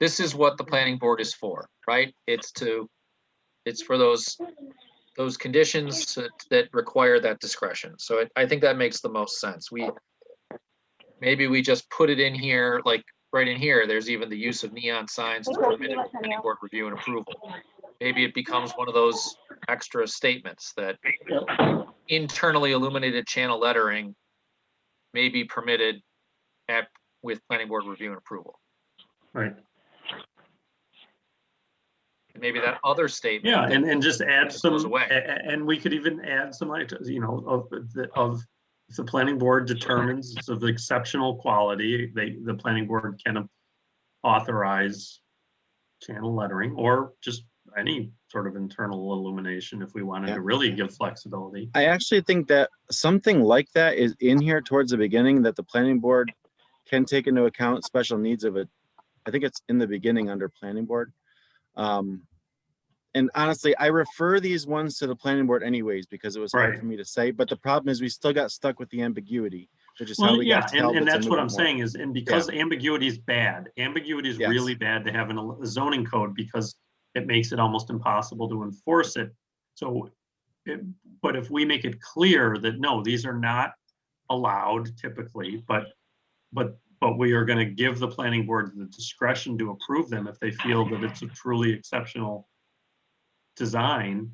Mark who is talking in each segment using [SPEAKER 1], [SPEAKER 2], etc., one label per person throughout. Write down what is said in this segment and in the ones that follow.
[SPEAKER 1] This is what the planning board is for, right? It's to, it's for those, those conditions that- that require that discretion. So it- I think that makes the most sense. We, maybe we just put it in here, like, right in here, there's even the use of neon signs is permitted with planning board review and approval. Maybe it becomes one of those extra statements that internally illuminated channel lettering may be permitted at, with planning board review and approval.
[SPEAKER 2] Right.
[SPEAKER 1] Maybe that other statement,
[SPEAKER 2] Yeah, and, and just add
[SPEAKER 1] Just
[SPEAKER 2] some,
[SPEAKER 1] goes
[SPEAKER 2] a-
[SPEAKER 1] away.
[SPEAKER 2] a- and we could even add some, like, you know, of, the- of, if the planning board determines it's of exceptional quality, they, the planning board can authorize channel lettering or just any sort of internal illumination if we wanted
[SPEAKER 3] Yeah.
[SPEAKER 2] to really give flexibility.
[SPEAKER 3] I actually think that something like that is in here towards the beginning that the planning board can take into account special needs of it. I think it's in the beginning under planning board. Um, and honestly, I refer these ones to the planning board anyways because it was hard
[SPEAKER 2] Right.
[SPEAKER 3] for me to say, but the problem is we still got stuck with the ambiguity, which is how
[SPEAKER 2] Well,
[SPEAKER 3] we
[SPEAKER 2] yeah,
[SPEAKER 3] got. to
[SPEAKER 2] and,
[SPEAKER 3] Talbot's
[SPEAKER 2] and that's what I'm
[SPEAKER 3] moving more.
[SPEAKER 2] saying is, and because ambiguity is bad, ambiguity is
[SPEAKER 3] Yes.
[SPEAKER 2] really bad to have in a zoning code because it makes it almost impossible to enforce it. So, it, but if we make it clear that no, these are not allowed typically, but, but, but we are gonna give the planning board the discretion to approve them if they feel that it's a truly exceptional design,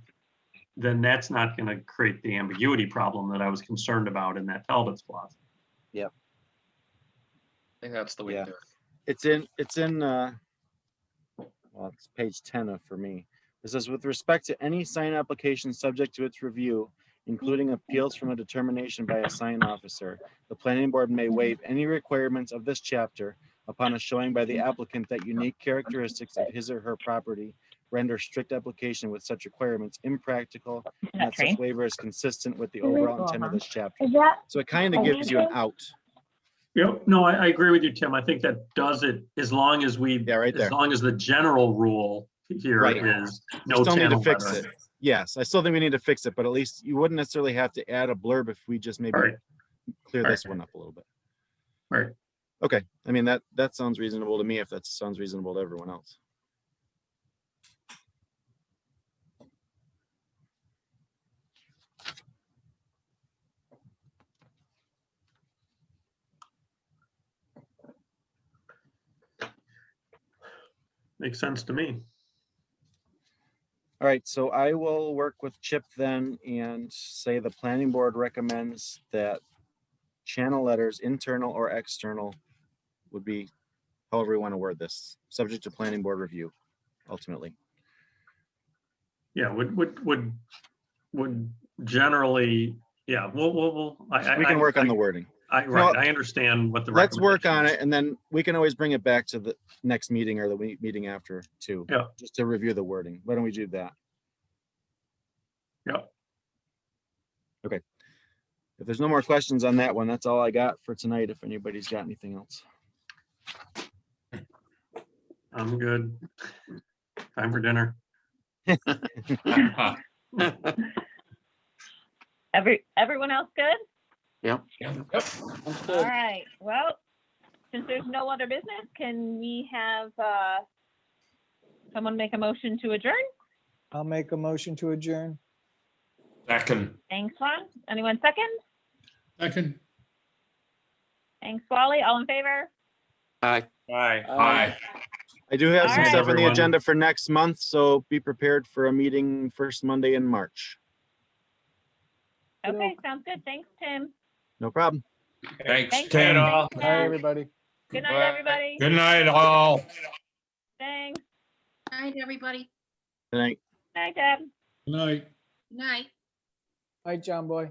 [SPEAKER 2] then that's not gonna create the ambiguity problem that I was concerned about in that Talbot's Plaza.
[SPEAKER 1] I think that's the way to
[SPEAKER 3] Yeah.
[SPEAKER 1] do it.
[SPEAKER 3] It's in, it's in, uh, well, it's page ten of for me. It says, with respect to any sign application subject to its review, including appeals from a determination by a sign officer, the planning board may waive any requirements of this chapter upon a showing by the applicant that unique characteristics of his or her property render strict application with such requirements impractical, and that such
[SPEAKER 4] Okay.
[SPEAKER 3] waiver is consistent with the
[SPEAKER 4] Can we
[SPEAKER 3] overall
[SPEAKER 4] go Oh,
[SPEAKER 3] intent of
[SPEAKER 4] on?
[SPEAKER 3] this chapter.
[SPEAKER 5] Is that,
[SPEAKER 3] So it kind of gives you an out.
[SPEAKER 2] Yep, no, I, I agree with you, Tim. I think that does it, as long as we,
[SPEAKER 3] Yeah, right
[SPEAKER 2] as
[SPEAKER 3] there.
[SPEAKER 2] long as the general rule here
[SPEAKER 3] Right.
[SPEAKER 2] is no
[SPEAKER 3] Still need to
[SPEAKER 2] channel
[SPEAKER 3] fix it.
[SPEAKER 2] lettering.
[SPEAKER 3] Yes, I still think we need to fix it, but at least you wouldn't necessarily have to add a blurb if we just maybe
[SPEAKER 2] All right,
[SPEAKER 3] clear
[SPEAKER 2] all
[SPEAKER 3] this one up a little bit.
[SPEAKER 2] all right.
[SPEAKER 3] Okay, I mean, that, that sounds reasonable to me if that sounds reasonable to everyone else.
[SPEAKER 2] Makes sense to me.
[SPEAKER 3] All right, so I will work with Chip then and say the planning board recommends that channel letters, internal or external, would be however we want to word this, subject to planning board review ultimately.
[SPEAKER 2] Yeah, would, would, would, would generally, yeah, we'll, we'll, we'll. I- I-
[SPEAKER 3] We
[SPEAKER 2] I-
[SPEAKER 3] can work on the wording.
[SPEAKER 2] I, right, I understand what the.
[SPEAKER 3] Let's work on it
[SPEAKER 2] recommendation
[SPEAKER 3] and then we can always bring it back to the next meeting or the we- meeting after too.
[SPEAKER 2] Yeah.
[SPEAKER 3] Just to review the wording. Why don't we do that?
[SPEAKER 2] is. Yep,
[SPEAKER 3] If there's no more questions on that one, that's all I got for tonight. If anybody's got anything else.
[SPEAKER 2] I'm good. Time for dinner.
[SPEAKER 4] Every, everyone else good?
[SPEAKER 1] Yep.
[SPEAKER 4] All right, well, since there's no other business, can we have, uh, someone make a motion to adjourn?
[SPEAKER 6] I'll make a motion to adjourn.
[SPEAKER 7] Second.
[SPEAKER 4] Thanks, Lon. Anyone second?
[SPEAKER 8] Second.
[SPEAKER 4] Thanks, Wally. All in favor?
[SPEAKER 7] Aye. Aye.
[SPEAKER 3] I do have
[SPEAKER 4] All
[SPEAKER 3] some
[SPEAKER 4] right.
[SPEAKER 3] stuff on the
[SPEAKER 2] Everyone.
[SPEAKER 3] agenda for next month, so be prepared for a meeting first Monday in March.
[SPEAKER 4] Okay, sounds good. Thanks, Tim.
[SPEAKER 3] No problem.
[SPEAKER 7] Thanks,
[SPEAKER 4] Thanks,
[SPEAKER 7] Ted.
[SPEAKER 4] Tim.
[SPEAKER 6] Bye, everybody.
[SPEAKER 4] Good night, everybody.
[SPEAKER 7] Good night, all.
[SPEAKER 4] Thanks.
[SPEAKER 9] Night, everybody.
[SPEAKER 3] Good night.
[SPEAKER 4] Night, Deb.
[SPEAKER 8] Good night.
[SPEAKER 9] Night.
[SPEAKER 6] Bye, John Boy.